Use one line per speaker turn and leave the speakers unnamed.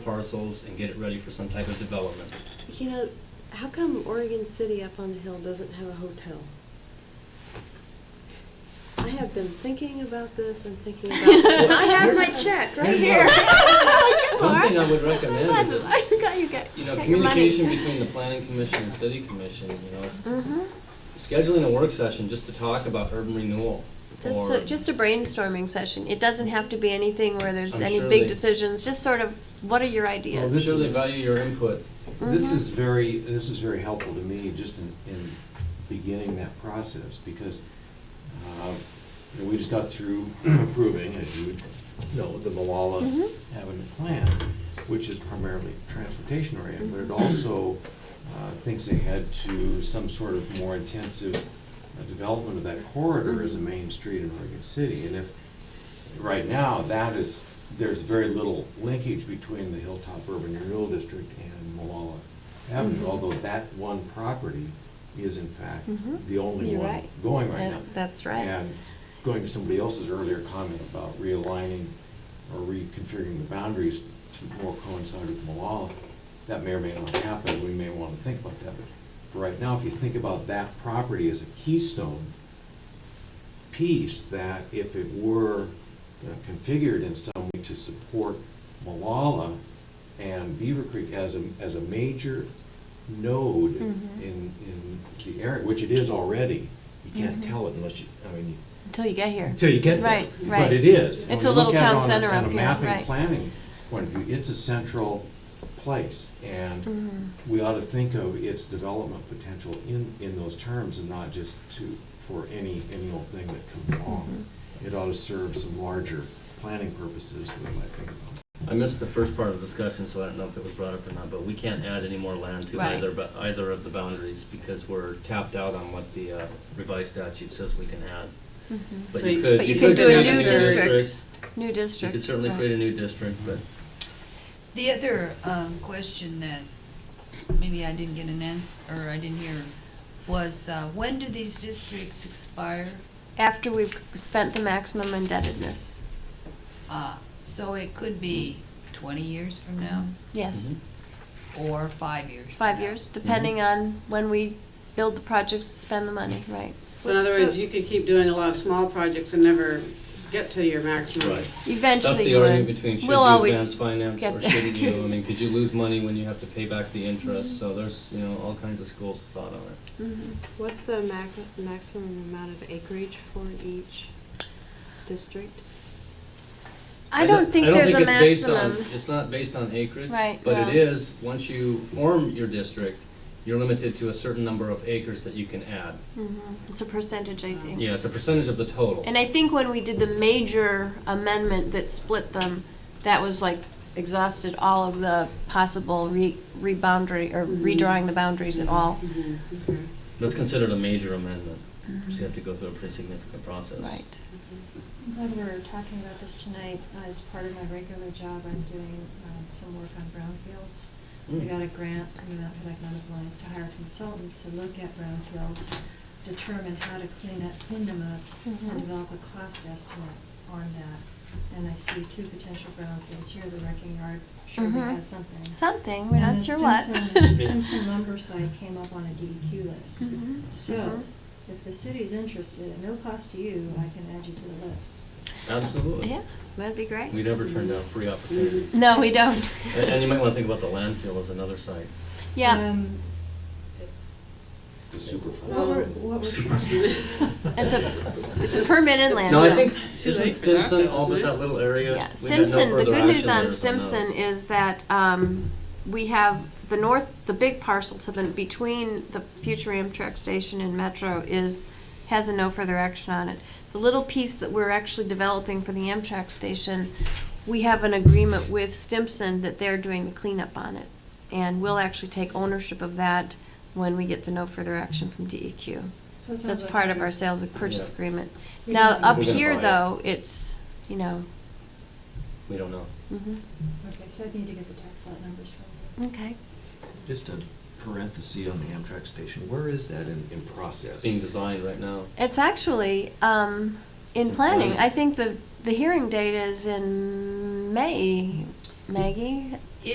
parcels and get it ready for some type of development.
You know, how come Oregon City up on the hill doesn't have a hotel? I have been thinking about this and thinking about this. and I have my check right here.
Here's
Come
One thing I
on.
would
Sometimes
recommend is,
you got, you got,
you know,
got your money.
communication between the planning commission and city commission, you know,
Mhm.
scheduling a work session just to talk about urban renewal.
Just,
or-
so, just a brainstorming session. It doesn't have to be anything where there's
I'm
any
sure
big
they-
decisions. Just sort of, what are your
Well,
ideas?
we surely value your input.
This
Mhm.
is very, this is very helpful to me, just in, in beginning that process, because uh, you know, we just got through approving, as you know, the Malala
Mhm.
Avenue Plan, which is primarily transportation oriented, but it also uh, thinks ahead to some sort of more intensive uh, development of that corridor as a main street in Oregon City. And if, right now, that is, there's very little linkage between the Hilltop Urban Renewal District and Malala Avenue,
Mhm.
although that one property is in fact
Mhm.
the only
You're
one
right.
going right
Yeah,
now.
that's right.
And going to somebody else's earlier comment about realigning or reconfiguring the boundaries to more coincide with Malala, that may or may not happen, we may want to think about that. But for right now, if you think about that property as a keystone piece, that if it were uh, configured in some way to support Malala and Beaver Creek as a, as a major node
Mhm.
in, in the area, which it is already, you can't
Mhm.
tell it unless you, I mean, you
Until you get here.
until you get there.
Right, right.
But it is.
It's
When
a
you
little
look at it
town
on a-
center up here,
On a mapping,
right.
planning point of view, it's a central place, and
Mhm.
we ought to think of its development potential in, in those terms and not just to, for any, any old thing that comes along.
Mm-hmm.
It ought to serve some larger planning purposes that I might think about.
I missed the first part of the discussion, so I don't know if it was brought up or not, but we can't add any more land to
Right.
either, but either of the boundaries because we're tapped out on what the uh, revised statute says we can add.
Mhm.
But
So
you
you-
could.
But you
you
could
could
do a
create a
new
new
district. New
You
district.
could certainly
right.
create a new district, but
The other um, question that maybe I didn't get an answer, or I didn't hear, was uh, when do these districts expire?
After we've spent the maximum indebtedness.
Uh, So it could be 20 years from now,
Yes.
Mm-hmm.
or five years from
Five
now.
years, depending on when we build the projects to spend the money, right?
So in other words, you could keep doing a lot of small projects and never get to your maximum.
Right. That's
Eventually
the
you
argument
would.
between should you
We'll always
advance finance
get
or
there. Mm-hmm.
shouldn't you? I mean, could you lose money when you have to pay back the interest? So there's, you know, all kinds of schools of thought on it.
Mhm.
What's the max- maximum amount of acreage for each district?
I don't think there's a
it's based on-
maximum.
It's not based on acreage.
Right,
But it
no.
is, once you form your district, you're limited to a certain number of acres that you can add.
Mhm. It's a percentage, I think.
Yeah, it's a percentage of the total.
And I think when we did the major amendment that split them, that was like exhausted all of the possible re, reboundary, or redrawing the boundaries at all.
Mhm, okay.
That's considered a major amendment, so you have to go through a pretty significant process.
Mm-hmm. Right.
I'm glad we're talking about this tonight. As part of my regular job, I'm doing um, some work on brownfields. We
Mm.
got a grant from the Mount Hood Economic Alliance to hire a consultant to look at brownfields, determine how to clean up, clean them up,
Mhm.
and develop a cost estimate on that. And I see two potential brownfields here, the wrecking yard, sure we
Mhm.
has something.
Something, we're not
And the
sure what.
Stimson- Stimson lumber site came up on a DEQ list.
Mm-hmm.
Mhm.
So, if the city's interested, at no cost to you, I can add you to the list.
Absolutely.
Yeah, that'd be great.
We never turn down
Mm-hmm.
free opportunities.
No, we don't.
And and you might want to think about the landfill as another site.
Yeah,
Um,
It's a super fund.
What we're, what we're.
it's a, it's a permanent landfill.
No, I think
It's too
isn't
late for that,
Stimson
though,
all but
isn't it?
that little area?
Yeah,
We've got no
Stimson, the
further
good news
action
on
letters
Stimson
those.
is that um, we have the north, the big parcel to the, between the future Amtrak station and Metro is, has a no further action on it. The little piece that we're actually developing for the Amtrak station, we have an agreement with Stimson that they're doing the cleanup on it. And we'll actually take ownership of that when we get the no further action from DEQ.
So it
So
sounds
that's
like
part of
we-
our sales and purchase
Yeah.
agreement.
We
Now,
don't-
up
We're gonna
here,
buy it.
though, it's, you know,
We don't know.
mhm.
Okay, so I need to get the tax lot numbers from you.
Okay.
Just a parenthesis on the Amtrak station, where is that in, in process?
It's being designed right now.
It's actually um, in
In
planning.
planning.
I think the, the hearing date is in May, Maggie.